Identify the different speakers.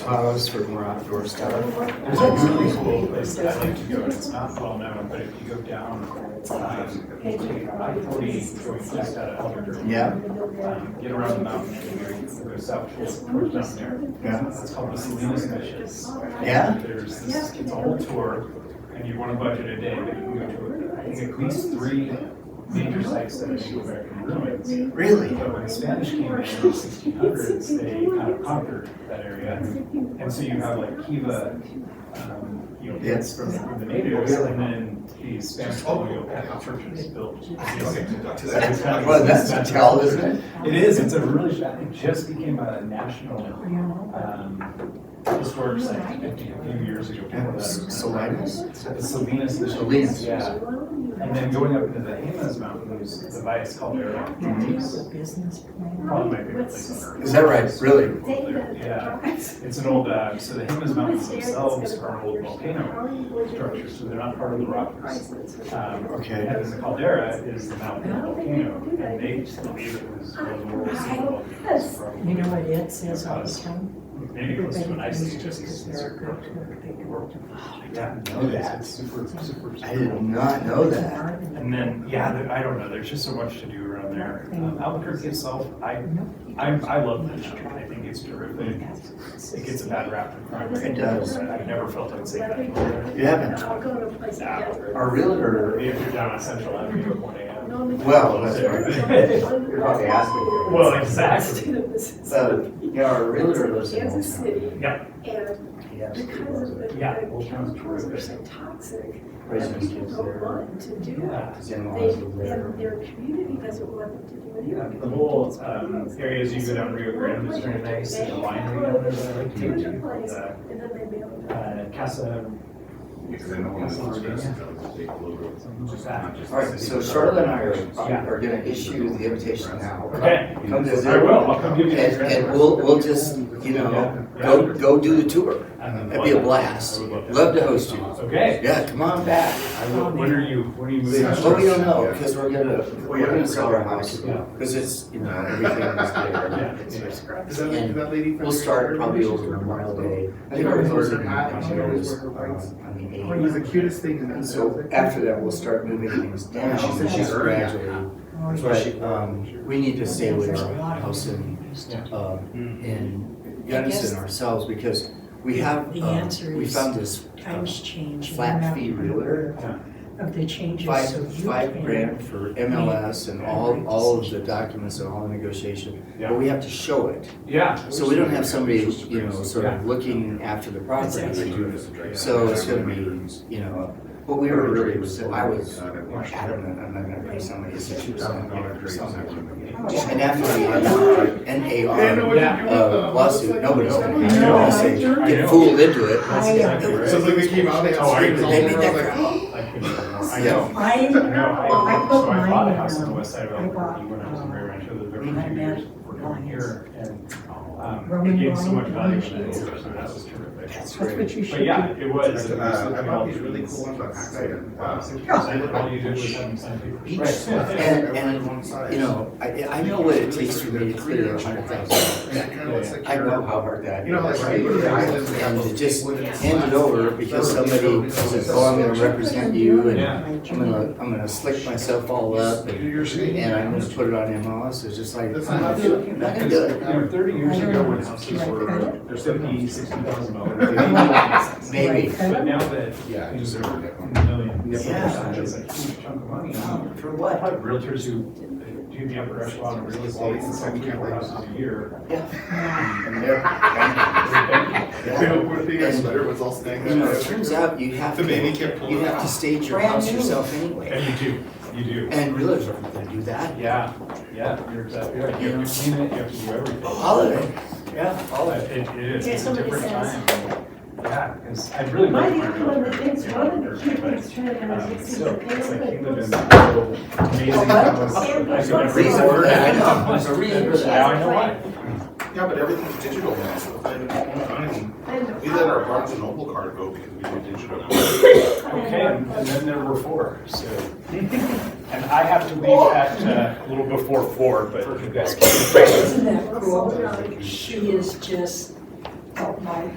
Speaker 1: Pause for more outdoor stuff.
Speaker 2: There's a really cool place that I like to go, and it's not well known, but if you go down, um, I forty, going just out of Elder.
Speaker 1: Yeah.
Speaker 2: Um, Get around the mountain, and you go south towards, towards down there.
Speaker 1: Yeah.
Speaker 2: It's called the Salinas Missions.
Speaker 1: Yeah?
Speaker 2: There's this, it's a whole tour, and you wanna budget a day, but you can go to, I think, at least three major sites that are Native American ruins.
Speaker 1: Really?
Speaker 2: But when the Spanish came in in the 1600s, they kind of conquered that area. And so you have like Kiva, um, you know,
Speaker 1: Yes.
Speaker 2: it's from from the natives, and then these Spanish colonial Catholic churches built.
Speaker 1: Well,
Speaker 2: Well,
Speaker 1: that's to tell, isn't it?
Speaker 2: It is, it's a really, it just became a national, um, historic site a few years ago.
Speaker 1: And Salinas?
Speaker 2: The Salinas. Missions,
Speaker 1: Salinas.
Speaker 2: Yeah. And then going up into the Jemez Mountains, the Valles Caldera,
Speaker 1: Mhm.
Speaker 3: business plan.
Speaker 2: probably my favorite place on earth.
Speaker 1: Is that right? Really?
Speaker 2: Yeah, it's an old, uh, so the Jemez Mountains themselves are old volcano structures, so they're not part of the Rockies. Um,
Speaker 1: Okay.
Speaker 2: And then the caldera is the mountain of the volcano, and they just believe it was
Speaker 1: Ah,
Speaker 2: one of the world's volcanoes
Speaker 3: You know
Speaker 2: from
Speaker 3: what it says all the time?
Speaker 2: maybe close to an
Speaker 3: Everybody
Speaker 2: ice
Speaker 3: needs
Speaker 2: age.
Speaker 3: to because they're a good cook, they go to
Speaker 2: Yeah,
Speaker 1: Oh, know that.
Speaker 2: it's super, super.
Speaker 1: I did not know that.
Speaker 3: Ireland.
Speaker 2: And then, yeah, there- I don't know, there's just so much to do around there. Um, Albuquerque itself, I, I, I love the town, I think it's terrific. It gets a
Speaker 3: Oh,
Speaker 2: bad rap for crime.
Speaker 1: It does.
Speaker 2: I've never felt unsafe anywhere.
Speaker 1: You haven't?
Speaker 4: I'll go to a place like that.
Speaker 1: Our realtor,
Speaker 2: If you're down on Central Avenue at one AM.
Speaker 1: well, that's right. You're probably asking.
Speaker 2: Well, exactly.
Speaker 1: So, yeah, our realtor lives in
Speaker 4: Kansas
Speaker 1: Old
Speaker 4: City,
Speaker 2: Yeah,
Speaker 4: and
Speaker 1: Town. Yes.
Speaker 4: because of the,
Speaker 2: Yeah.
Speaker 4: the chemicals are so toxic,
Speaker 1: Raising
Speaker 4: that
Speaker 1: his
Speaker 4: people
Speaker 1: kids
Speaker 4: don't
Speaker 1: there.
Speaker 4: want to do it.
Speaker 2: yeah.
Speaker 1: His in-laws live
Speaker 4: They,
Speaker 1: there.
Speaker 4: and their community doesn't want them to do it
Speaker 2: Yeah,
Speaker 4: either.
Speaker 2: The whole, um, areas you go down Rio Grande is very nice, and the winery down there that I like to go
Speaker 4: Doing a place,
Speaker 2: to.
Speaker 4: and then they mail it
Speaker 2: uh, Uh, Casa,
Speaker 5: Because I know one of those guys is going to take a little.
Speaker 2: something like that.
Speaker 1: All right, so Charlotte and I are, are gonna issue the invitation now.
Speaker 2: Okay,
Speaker 1: Come visit.
Speaker 2: I will, I'll come give you the
Speaker 1: And,
Speaker 2: address.
Speaker 1: and we'll, we'll just, you know, go, go do the tour. That'd be a blast. Love to host you.
Speaker 2: Okay,
Speaker 1: Yeah, come on back.
Speaker 2: I will, when are you, when are you moving?
Speaker 1: But we don't know, because we're gonna, we're gonna sell our house, because it's, you know, everything is there.
Speaker 2: Yeah, it's nice.
Speaker 6: Is that, is that lady from?
Speaker 1: We'll start probably over Memorial Day. I think our closing dinner is um, on the
Speaker 6: It was the
Speaker 1: 8th.
Speaker 6: cutest thing in that.
Speaker 1: And so after that, we'll start moving things down.
Speaker 6: She said she's early.
Speaker 1: gradually. But, um, we need to stay with our house in, um, in Gunnison ourselves, because we have,
Speaker 3: The
Speaker 1: um,
Speaker 3: answer
Speaker 1: we
Speaker 3: is
Speaker 1: found this um,
Speaker 3: Times change. and
Speaker 1: flat
Speaker 3: amount
Speaker 1: fee realtor
Speaker 3: Of the changes, so
Speaker 1: five,
Speaker 3: you
Speaker 1: five
Speaker 3: can.
Speaker 1: grand for MLS and all, all of the documents and all the negotiation, but we have to show it.
Speaker 2: Yeah,
Speaker 1: So we don't have somebody, you know, sort of looking after the property, So it's gonna be- you know, but we were really, I was adamant, I'm not gonna pay somebody sixty thousand dollars or something. And after the N A R
Speaker 2: Yeah.
Speaker 1: uh, lawsuit, nobody's gonna be,
Speaker 2: No, I
Speaker 1: say,
Speaker 2: know.
Speaker 1: get fooled into it.
Speaker 2: That's exactly right.
Speaker 6: So it's like they came out, they
Speaker 2: Oh,
Speaker 6: had
Speaker 2: I
Speaker 6: strings
Speaker 2: agree.
Speaker 6: all
Speaker 1: They made
Speaker 6: over, I
Speaker 1: that
Speaker 6: was like,
Speaker 1: crap.
Speaker 6: oh.
Speaker 2: I couldn't even know. I
Speaker 1: Yeah.
Speaker 2: know.
Speaker 3: I,
Speaker 2: I know, I,
Speaker 3: I put
Speaker 2: so I bought a
Speaker 3: mine,
Speaker 2: house on the
Speaker 3: um,
Speaker 2: west side of
Speaker 3: I bought,
Speaker 2: Albuquerque
Speaker 3: um,
Speaker 2: when I was in Grand Rancho, lived there for
Speaker 3: I
Speaker 2: a few
Speaker 3: met
Speaker 2: years, working over here, and, um,
Speaker 3: Roman
Speaker 2: it gained so much
Speaker 3: Roman
Speaker 2: value in that
Speaker 3: sheets.
Speaker 2: year, so that was terrific.
Speaker 3: that's what you should
Speaker 2: But yeah,
Speaker 3: do.
Speaker 2: it was. it was
Speaker 6: Uh, I
Speaker 2: something
Speaker 6: bought
Speaker 2: about
Speaker 6: these really cool ones on
Speaker 2: trees.
Speaker 6: Pakistan.
Speaker 2: Wow.
Speaker 6: Uh,
Speaker 2: And All you did was have them sign papers.
Speaker 1: Each, and, and, you know, I, I know what it takes for me to clear a hundred thousand dollars.
Speaker 6: and it kinda looks like
Speaker 1: I
Speaker 6: you're-
Speaker 1: know how hard that is.
Speaker 6: You know, like, right, you know,
Speaker 1: And to just hand it over because somebody says, oh, I'm gonna represent you and
Speaker 2: Yeah.
Speaker 1: I'm gonna, I'm gonna slick myself all up
Speaker 6: Do
Speaker 1: and
Speaker 6: your thing.
Speaker 1: and I'm gonna put it on MLS. It's just like,
Speaker 6: That's
Speaker 1: I'm
Speaker 6: not
Speaker 1: not
Speaker 6: good.
Speaker 1: doing- not gonna do it.
Speaker 2: You know, thirty years ago, when houses were, they're seventy, sixty thousand dollars.
Speaker 1: Maybe.
Speaker 2: But now that,
Speaker 5: Yeah,
Speaker 2: you know,
Speaker 5: just
Speaker 2: they're
Speaker 5: every day.
Speaker 2: millions,
Speaker 1: Yeah.
Speaker 2: it's a huge chunk of money.
Speaker 1: For
Speaker 2: I
Speaker 1: what?
Speaker 2: have realtors who do the upper echelon of real estate, and sell three, four houses a year.
Speaker 1: And they're- and-
Speaker 6: You know, one thing, I sweater was all snaked
Speaker 1: You know,
Speaker 6: up.
Speaker 1: it turns out you have
Speaker 6: The
Speaker 1: to,
Speaker 6: baby kept pulling
Speaker 1: you
Speaker 6: it
Speaker 1: have to
Speaker 6: out.
Speaker 1: stage your
Speaker 3: Brand
Speaker 1: house
Speaker 3: new.
Speaker 1: yourself anyway.
Speaker 2: And you do, you do.
Speaker 1: And realtors aren't gonna do that.
Speaker 2: Yeah, yeah, you're exactly right. You have to clean it, you have to do everything.
Speaker 1: All of it.
Speaker 2: Yeah, all of it. It it is.
Speaker 4: Yeah,
Speaker 2: It's a
Speaker 4: somebody
Speaker 2: different
Speaker 4: says-
Speaker 2: time. Yeah, because I really
Speaker 4: Why
Speaker 2: like
Speaker 4: do you
Speaker 2: my
Speaker 4: come on the things
Speaker 2: realtor,
Speaker 4: wrong and
Speaker 2: but,
Speaker 4: keep things trying to
Speaker 2: um,
Speaker 4: make
Speaker 2: still, it's like he lived in
Speaker 4: sense?
Speaker 2: this little amazing house. I could never
Speaker 1: Reason for
Speaker 2: afford it.
Speaker 1: that, I know. There's a reason for
Speaker 2: Now
Speaker 1: that.
Speaker 2: I know why.
Speaker 5: Yeah, but everything's digital now, so it's not even online.
Speaker 4: I know.
Speaker 5: We let our Barnes and Noble card go because we went digital.
Speaker 2: Okay, and and then there were four, so. And I have to leave at uh, a little before four, but you guys can.
Speaker 3: Isn't that cool? She is just help my